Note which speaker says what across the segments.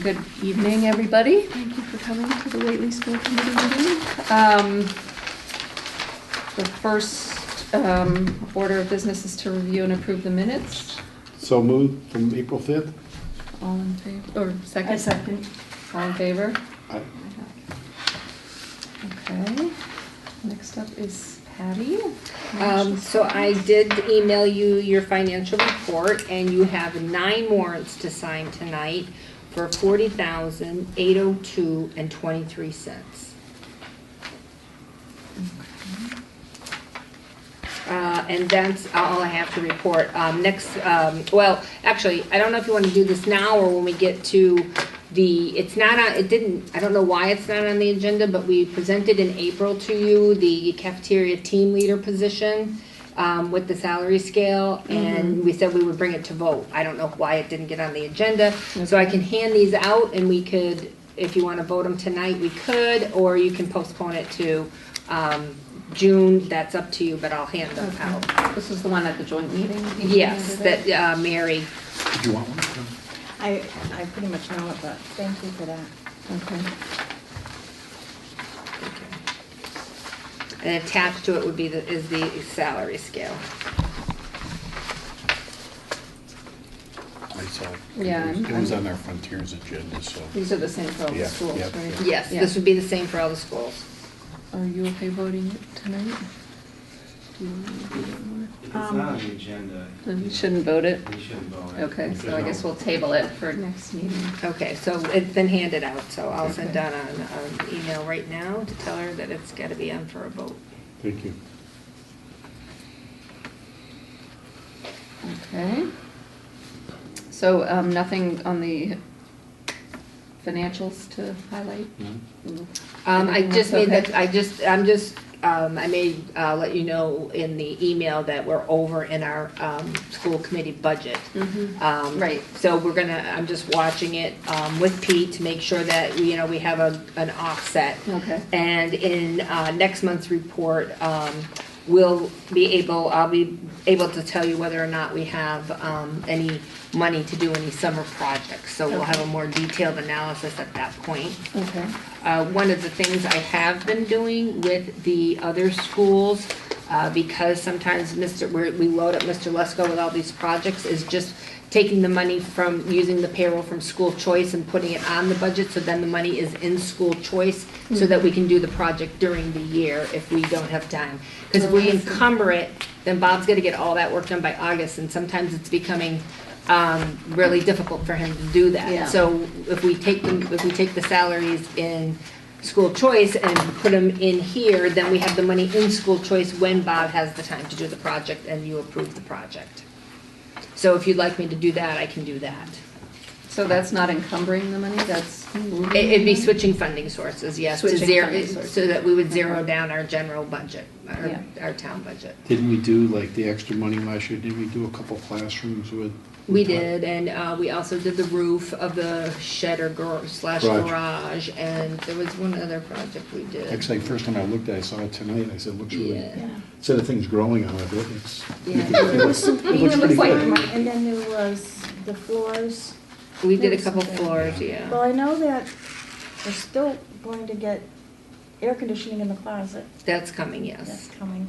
Speaker 1: Good evening, everybody. Thank you for coming to the Whately School Committee meeting. Um, The first um, order of business is to review and approve the minutes.
Speaker 2: So moved from April 5th?
Speaker 1: All in favor, or second?
Speaker 3: I second.
Speaker 1: All in favor?
Speaker 2: I-
Speaker 1: Okay. Next up is Patty.
Speaker 4: Um, so I did email you your financial report and you have nine warrants to sign tonight for forty thousand, eight oh two and twenty-three cents. Uh, and that's all I have to report. Um, next, um, well, actually, I don't know if you wanna do this now or when we get to the, it's not on, it didn't, I don't know why it's not on the agenda, but we presented in April to you the cafeteria team leader position, um, with the salary scale, and we said we would bring it to vote. I don't know why it didn't get on the agenda, so I can hand these out and we could, if you wanna vote them tonight, we could, or you can postpone it to, um, June, that's up to you, but I'll hand them out.
Speaker 1: Okay. This is the one at the joint meeting?
Speaker 4: Yes, that, uh, Mary,
Speaker 2: Do you want one?
Speaker 3: I, I pretty much know it, but thank you for that.
Speaker 1: Okay.
Speaker 4: and attached to it would be the, is the salary scale.
Speaker 2: I saw. it.
Speaker 1: Yeah, I'm-
Speaker 2: It was on our Frontiers agenda, so.
Speaker 1: These are the same for all the
Speaker 2: Yeah,
Speaker 1: schools,
Speaker 2: yeah,
Speaker 1: right?
Speaker 2: yeah.
Speaker 4: Yes, this would be the same for all the schools.
Speaker 1: Are you okay voting it tonight? Do you want me to do that more?
Speaker 5: If it's not on
Speaker 3: Um,
Speaker 5: the agenda.
Speaker 4: Um,
Speaker 1: Then we shouldn't vote it?
Speaker 5: We shouldn't vote. it.
Speaker 1: Okay, so I
Speaker 5: There's
Speaker 1: guess
Speaker 5: no-
Speaker 1: we'll table it for next meeting.
Speaker 4: Okay, so it's been handed out, so I'll send
Speaker 1: Okay.
Speaker 4: Donna an, an email right now to tell her that it's gotta be on for a vote.
Speaker 2: Thank you.
Speaker 1: Okay. So, um, nothing on the financials to highlight? Mm-hmm.
Speaker 2: No?
Speaker 1: No.
Speaker 4: Um, I
Speaker 1: Anything else?
Speaker 4: just made that,
Speaker 1: Okay.
Speaker 4: I just, I'm just, um, I may, uh, let you know in the email that we're over in our, um, school committee budget. Um,
Speaker 1: Mm-hmm. Right.
Speaker 4: So we're gonna, I'm just watching it, um, with Pete to make sure that, you know, we have a, an offset.
Speaker 1: Okay.
Speaker 4: And in, uh, next month's report, um, we'll be able, I'll be able to tell you whether or not we have, um, any money to do any summer projects. So we'll have a more detailed analysis at that point.
Speaker 1: Okay.
Speaker 4: Uh, One of the things I have been doing with the other schools, uh, because sometimes Mr., we're- we load up Mr. Lesko with all these projects, is just taking the money from, using the payroll from school choice and putting it on the budget, so then the money is in school choice, so that we can do the project during the year if we don't have time. Because if we encumber it, then Bob's gonna get all that work done by August, and sometimes it's becoming um, really difficult for him to do that.
Speaker 1: Yeah.
Speaker 4: So if we take them, if we take the salaries in school choice and put them in here, then we have the money in school choice when Bob has the time to do the project and you approve the project. So if you'd like me to do that, I can do that.
Speaker 1: So that's not encumbering the money, that's
Speaker 4: It-
Speaker 1: moving?
Speaker 4: It'd be switching funding sources, yes, to
Speaker 1: Switching
Speaker 4: zero,
Speaker 1: funding sources.
Speaker 4: so that we would zero down our general budget,
Speaker 1: Yeah.
Speaker 4: our, our town budget.
Speaker 2: Didn't we do like the extra money last year? Didn't we do a couple classrooms with?
Speaker 4: We did, and uh, we also did the roof of the shed or gar- slash
Speaker 2: Garage.
Speaker 4: garage, and there was one other project we did.
Speaker 2: Actually, first time I looked at it, I saw it tonight. I said, looks really,
Speaker 4: Yeah.
Speaker 2: instead of things growing on it, it looks.
Speaker 4: Yeah.
Speaker 2: it looks- it looks pretty good.
Speaker 3: And then there was the floors.
Speaker 4: We did
Speaker 3: There
Speaker 4: a
Speaker 3: was
Speaker 4: couple
Speaker 3: something.
Speaker 4: floors,
Speaker 3: Well,
Speaker 4: yeah.
Speaker 3: I know that we're still going to get air conditioning in the closet.
Speaker 4: That's coming,
Speaker 3: That's
Speaker 4: yes.
Speaker 3: coming.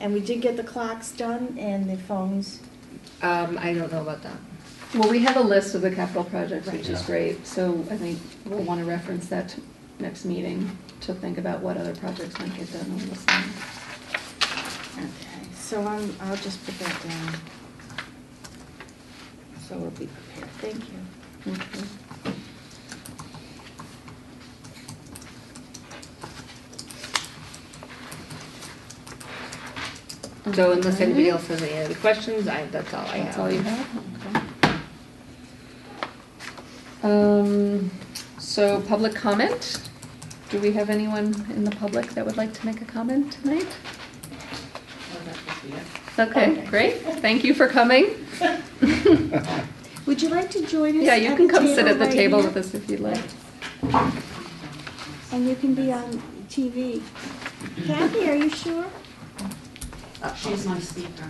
Speaker 3: And we did get the clocks done and the phones.
Speaker 4: Um, I don't know about that.
Speaker 1: Well, we have a list of the capital projects, which is
Speaker 2: Yeah.
Speaker 1: great, so I think we'll want to reference that to next meeting to think about what other projects might get done on this thing.
Speaker 3: Okay. So I'm, I'll just put that down. So we'll be prepared. Thank you.
Speaker 1: Okay.
Speaker 4: So unless
Speaker 1: Okay.
Speaker 4: anybody else has any other questions, I, that's all I have.
Speaker 1: That's all you have? Um, so public comment? Do we have anyone in the public that would like to make a comment tonight? Okay,
Speaker 3: Okay.
Speaker 1: great. Thank you for coming.
Speaker 3: Would you like to join us?
Speaker 1: Yeah, you
Speaker 3: at
Speaker 1: can
Speaker 3: the
Speaker 1: come sit at the
Speaker 3: right
Speaker 1: table
Speaker 3: here?
Speaker 1: with us if you'd like.
Speaker 3: And you can be on TV. Kathy, are you sure?
Speaker 6: She's my speaker.